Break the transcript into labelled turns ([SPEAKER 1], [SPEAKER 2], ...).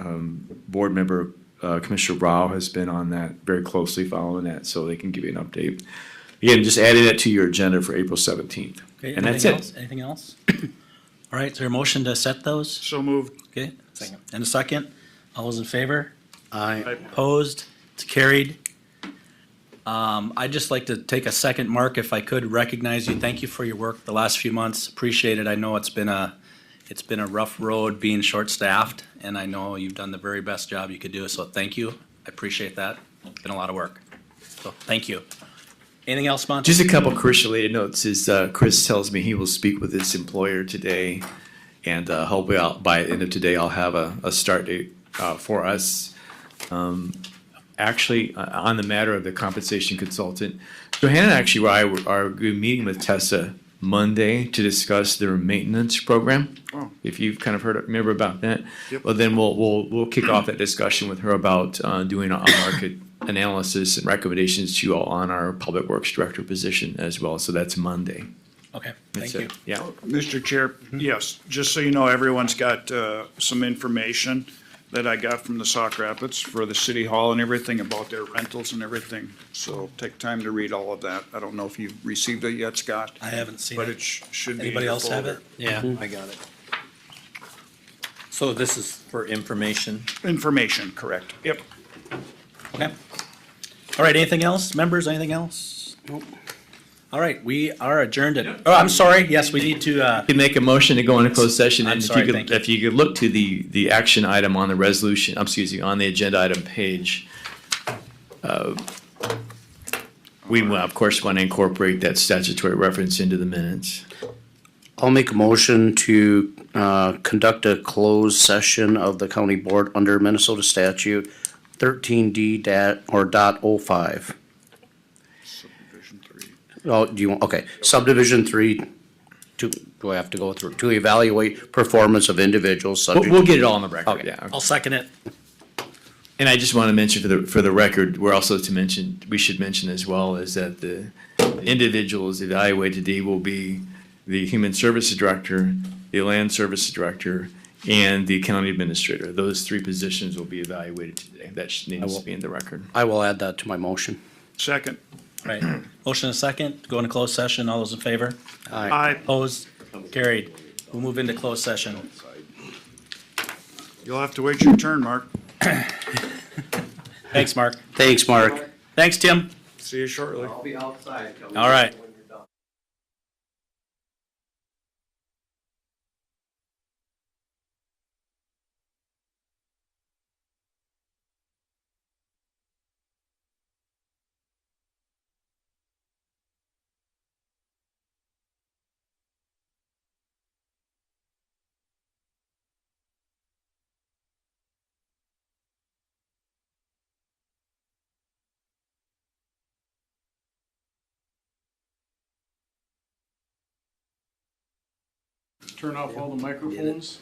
[SPEAKER 1] Board member uh, Commissioner Rao has been on that very closely following that, so they can give you an update. Again, just adding that to your agenda for April seventeenth.
[SPEAKER 2] Okay,
[SPEAKER 1] And that's
[SPEAKER 2] anything
[SPEAKER 1] it.
[SPEAKER 2] else? Anything else? All right, is there a motion to set those?
[SPEAKER 3] So moved.
[SPEAKER 2] Okay, and a second? All those in favor?
[SPEAKER 3] Aye.
[SPEAKER 2] Opposed? It's carried. Um, I'd just like to take a second, Mark, if I could, recognize you. Thank you for your work the last few months. Appreciate it. I know it's been a, it's been a rough road being short-staffed, and I know you've done the very best job you could do, so thank you. I appreciate that. It's Been a lot of work. So, thank you. Anything else, Monty?
[SPEAKER 1] Just a couple Chris-related notes is uh, Chris tells me he will speak with his employer today, and uh, hopefully I'll, by the end of today, I'll have a, a start date uh, for us. Um, Actually, uh, on the matter of the compensation consultant, Johanna and actually, I were- are good meeting with Tessa Monday to discuss their maintenance program.
[SPEAKER 3] Oh.
[SPEAKER 1] If you've kind of heard, remember about that?
[SPEAKER 3] Yep.
[SPEAKER 1] Well, then we'll, we'll, we'll kick off that discussion with her about uh, doing a market analysis and recommendations to you all on our public works director position as well. So that's Monday.
[SPEAKER 2] Okay,
[SPEAKER 1] That's
[SPEAKER 2] thank you.
[SPEAKER 1] it. Yeah.
[SPEAKER 3] Mr. Chair,
[SPEAKER 2] Mm-hmm.
[SPEAKER 3] yes, just so you know, everyone's got uh, some information that I got from the Sauk Rapids for the city hall and everything about their rentals and everything. So take time to read all of that. I don't know if you've received it yet, Scott.
[SPEAKER 2] I haven't seen
[SPEAKER 3] But
[SPEAKER 2] it.
[SPEAKER 3] it sh- should be. in
[SPEAKER 2] Anybody
[SPEAKER 3] your
[SPEAKER 2] else have it?
[SPEAKER 3] folder.
[SPEAKER 4] Yeah, I got it. Mm-hmm. So this is for information.
[SPEAKER 3] Information, correct. Yep.
[SPEAKER 2] Okay. All right, anything else? Members, anything else? Nope. All right, we are adjourned at, oh, I'm sorry, yes, we need to, uh,
[SPEAKER 1] You make a motion to go into closed session.
[SPEAKER 2] I'm
[SPEAKER 1] and if you
[SPEAKER 2] sorry,
[SPEAKER 1] could-
[SPEAKER 2] thank you.
[SPEAKER 1] If you could look to the, the action item on the resolution, I'm excuse me, on the agenda item page. uh, We, will, of course, want to incorporate that statutory reference into the minutes.
[SPEAKER 5] I'll make a motion to uh, conduct a closed session of the county board under Minnesota statute thirteen D dat, or dot oh five.
[SPEAKER 3] Subdivision three.
[SPEAKER 5] Oh, do you, want- okay, subdivision three, to, do I have to go through, to evaluate performance of individuals
[SPEAKER 1] We'll,
[SPEAKER 5] subject.
[SPEAKER 1] we'll get it all on the record,
[SPEAKER 5] Okay.
[SPEAKER 1] yeah.
[SPEAKER 2] I'll second it.
[SPEAKER 1] And I just want to mention for the, for the record, we're also to mention, we should mention as well is that the individuals evaluated today will be the Human Services Director, the Land Services Director, and the County Administrator. Those three positions will be evaluated today. That should- needs to be in the record.
[SPEAKER 5] I will add that to my motion.
[SPEAKER 3] Second.
[SPEAKER 2] All Right, motion and a second, go into closed session, all those in favor?
[SPEAKER 3] Aye.
[SPEAKER 2] Opposed? Carried. We'll move into closed session.
[SPEAKER 3] You'll have to wait your turn, Mark.
[SPEAKER 2] Thanks, Mark.
[SPEAKER 5] Thanks, Mark.
[SPEAKER 2] Thanks, Tim.
[SPEAKER 3] See you shortly.
[SPEAKER 2] All right.
[SPEAKER 3] Turn off all the microphones.